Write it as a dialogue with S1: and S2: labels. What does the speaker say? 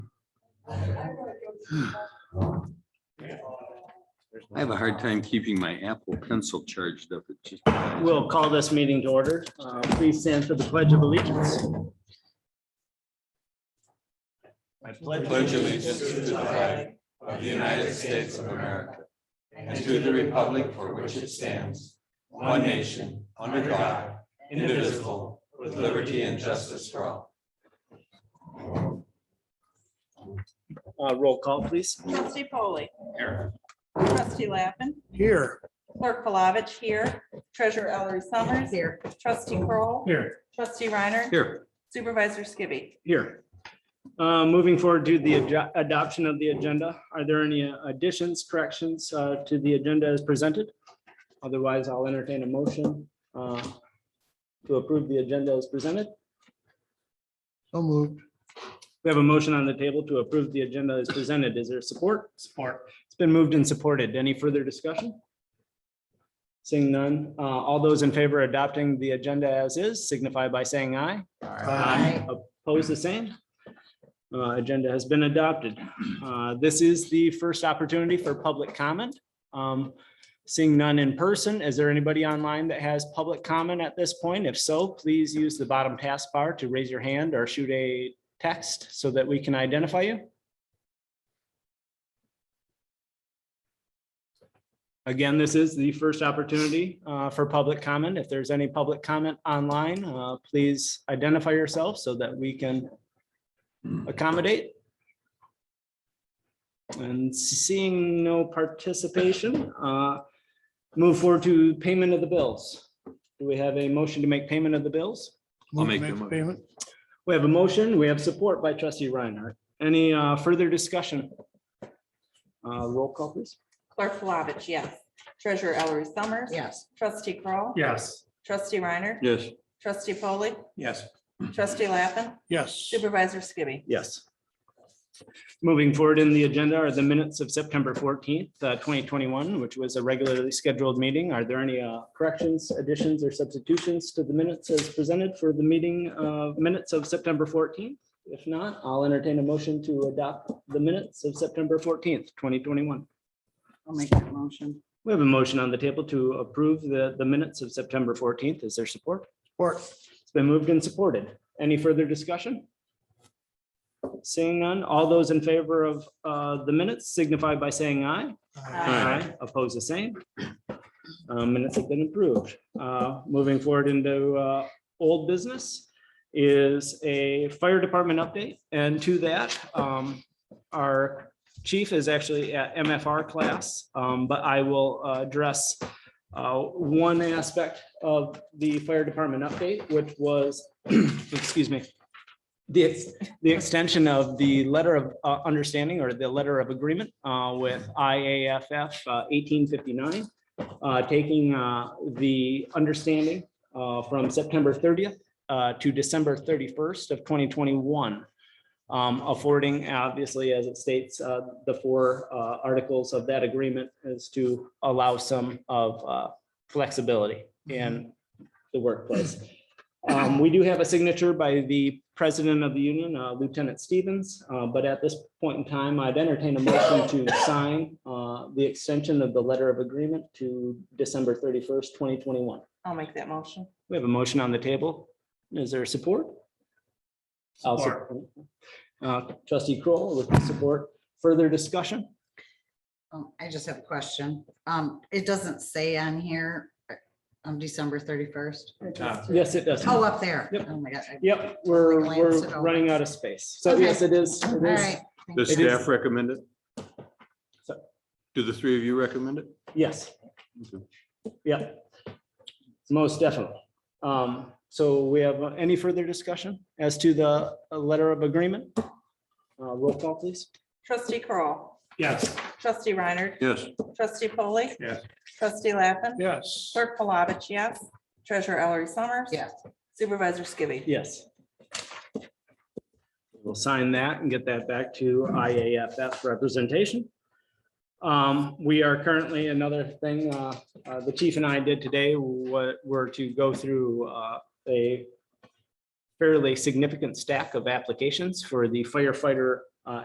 S1: I have a hard time keeping my Apple Pencil charged up. It just.
S2: We'll call this meeting to order. Uh, Please stand for the Pledge of Allegiance.
S3: I pledge allegiance to the flag of the United States of America and to the republic for which it stands, one nation, under God, indivisible, with liberty and justice for all.
S2: Uh, Roll call, please.
S4: Trustee Polly. Here. Trustee Lappin.
S2: Here.
S4: Clerk Palovich here. Treasurer Ellery Summers. Here. Trustee Kroll,
S2: Here.
S4: Trustee Reiner.
S1: Here,
S4: Supervisor Skibby.
S2: Here. Uh, Moving forward to the ad- adoption of the agenda. Are there any additions, corrections uh, to the agenda as presented? Otherwise, I'll entertain a motion uh, to approve the agenda as presented.
S5: So moved.
S2: We have a motion on the table to approve the agenda as presented. Is there support? Support. It's been moved and supported. Any further discussion? Seeing none, uh, all those in favor of adopting the agenda as is signify by saying aye.
S5: Aye.
S2: Oppose the same? Uh, Agenda has been adopted. Uh, This is the first opportunity for public comment. Um, Seeing none in person, is there anybody online that has public comment at this point? If so, please use the bottom taskbar to raise your hand or shoot a text so that we can identify you. Again, this is the first opportunity uh, for public comment. If there's any public comment online, uh, please identify yourself so that we can accommodate. And seeing no participation, uh, move forward to payment of the bills. Do we have a motion to make payment of the bills?
S1: I'll
S5: Move to
S1: make the mo-
S5: Payment.
S2: We have a motion. We have support by trustee Reinhardt. Any uh, further discussion? Uh, Roll call, please.
S4: Clerk Palovich, yes. Treasurer Ellery Summers.
S5: Yes.
S4: Trustee Kroll,
S2: Yes.
S4: Trustee Reiner.
S1: yes,
S4: Trustee Polly.
S3: Yes.
S4: Trustee Lappin.
S5: Yes.
S4: Supervisor Skibby.
S2: Yes. Moving forward in the agenda are the minutes of September fourteenth, uh, twenty twenty-one, which was a regularly scheduled meeting. Are there any uh, corrections, additions, or substitutions to the minutes as presented for the meeting uh, minutes of September fourteenth? If not, I'll entertain a motion to adopt the minutes of September fourteenth, twenty twenty-one.
S6: I'll make that motion.
S2: We have a motion on the table to approve the, the minutes of September fourteenth. Is there support?
S5: Support.
S2: It's been moved and supported. Any further discussion? Seeing none, all those in favor of uh, the minutes signify by saying aye. Oppose the same. Uh, Minutes have been approved. Uh, Moving forward into uh, old business is a fire department update. And to that, um, our chief is actually at MFR class, um, but I will uh, address uh, one aspect of the fire department update, which was, excuse me, the, ex- the extension of the letter of uh, understanding or the letter of agreement uh, with IAFF uh, 1859, uh, taking uh, the understanding uh, from September 30th uh, to December 31st of 2021. um, Affording, obviously, as it states, uh, the four uh, articles of that agreement is to allow some of uh, flexibility in the workplace. Um, we do have a signature by the president of the union, uh, Lieutenant Stevens, uh, but at this point in time, I'd entertain a motion to sign, uh, the extension of the letter of agreement to December thirty-first, twenty twenty-one.
S4: I'll make that motion.
S2: We have a motion on the table. Is there support? I'll support. Uh, trustee Kroll with the support. Further discussion?
S6: Um, I just have a question. Um, it doesn't say on here, uh, on December thirty-first.
S2: Yes, it does.
S6: Oh, up there.
S2: Yep.
S6: Oh, my God. I-
S2: Yep, we're,
S6: Glance
S2: we're
S6: it over.
S2: running out of space. So
S6: Okay.
S2: yes, it is.
S6: All
S2: It is.
S6: right.
S1: the
S2: It is-
S1: staff recommend it?
S2: So-
S1: Do the three of you recommend it?
S2: Yes.
S1: Okay.
S2: Yeah, most definitely. Um, so we have uh, any further discussion as to the uh, letter of agreement? Uh, roll call, please.
S4: Trustee Kroll,
S2: Yes.
S4: Trustee Reiner.
S1: Yes,
S4: Trustee Polly.
S3: Yes.
S4: Trustee Lappin.
S5: Yes.
S4: Clerk Palovich, yes. Treasurer Ellery Summers.
S6: Yes.
S4: Supervisor Skibby.
S2: Yes. We'll sign that and get that back to IAFF representation. Um, we are currently, another thing, uh, uh, the chief and I did today, what, were to go through, uh, a fairly significant stack of applications for the firefighter uh,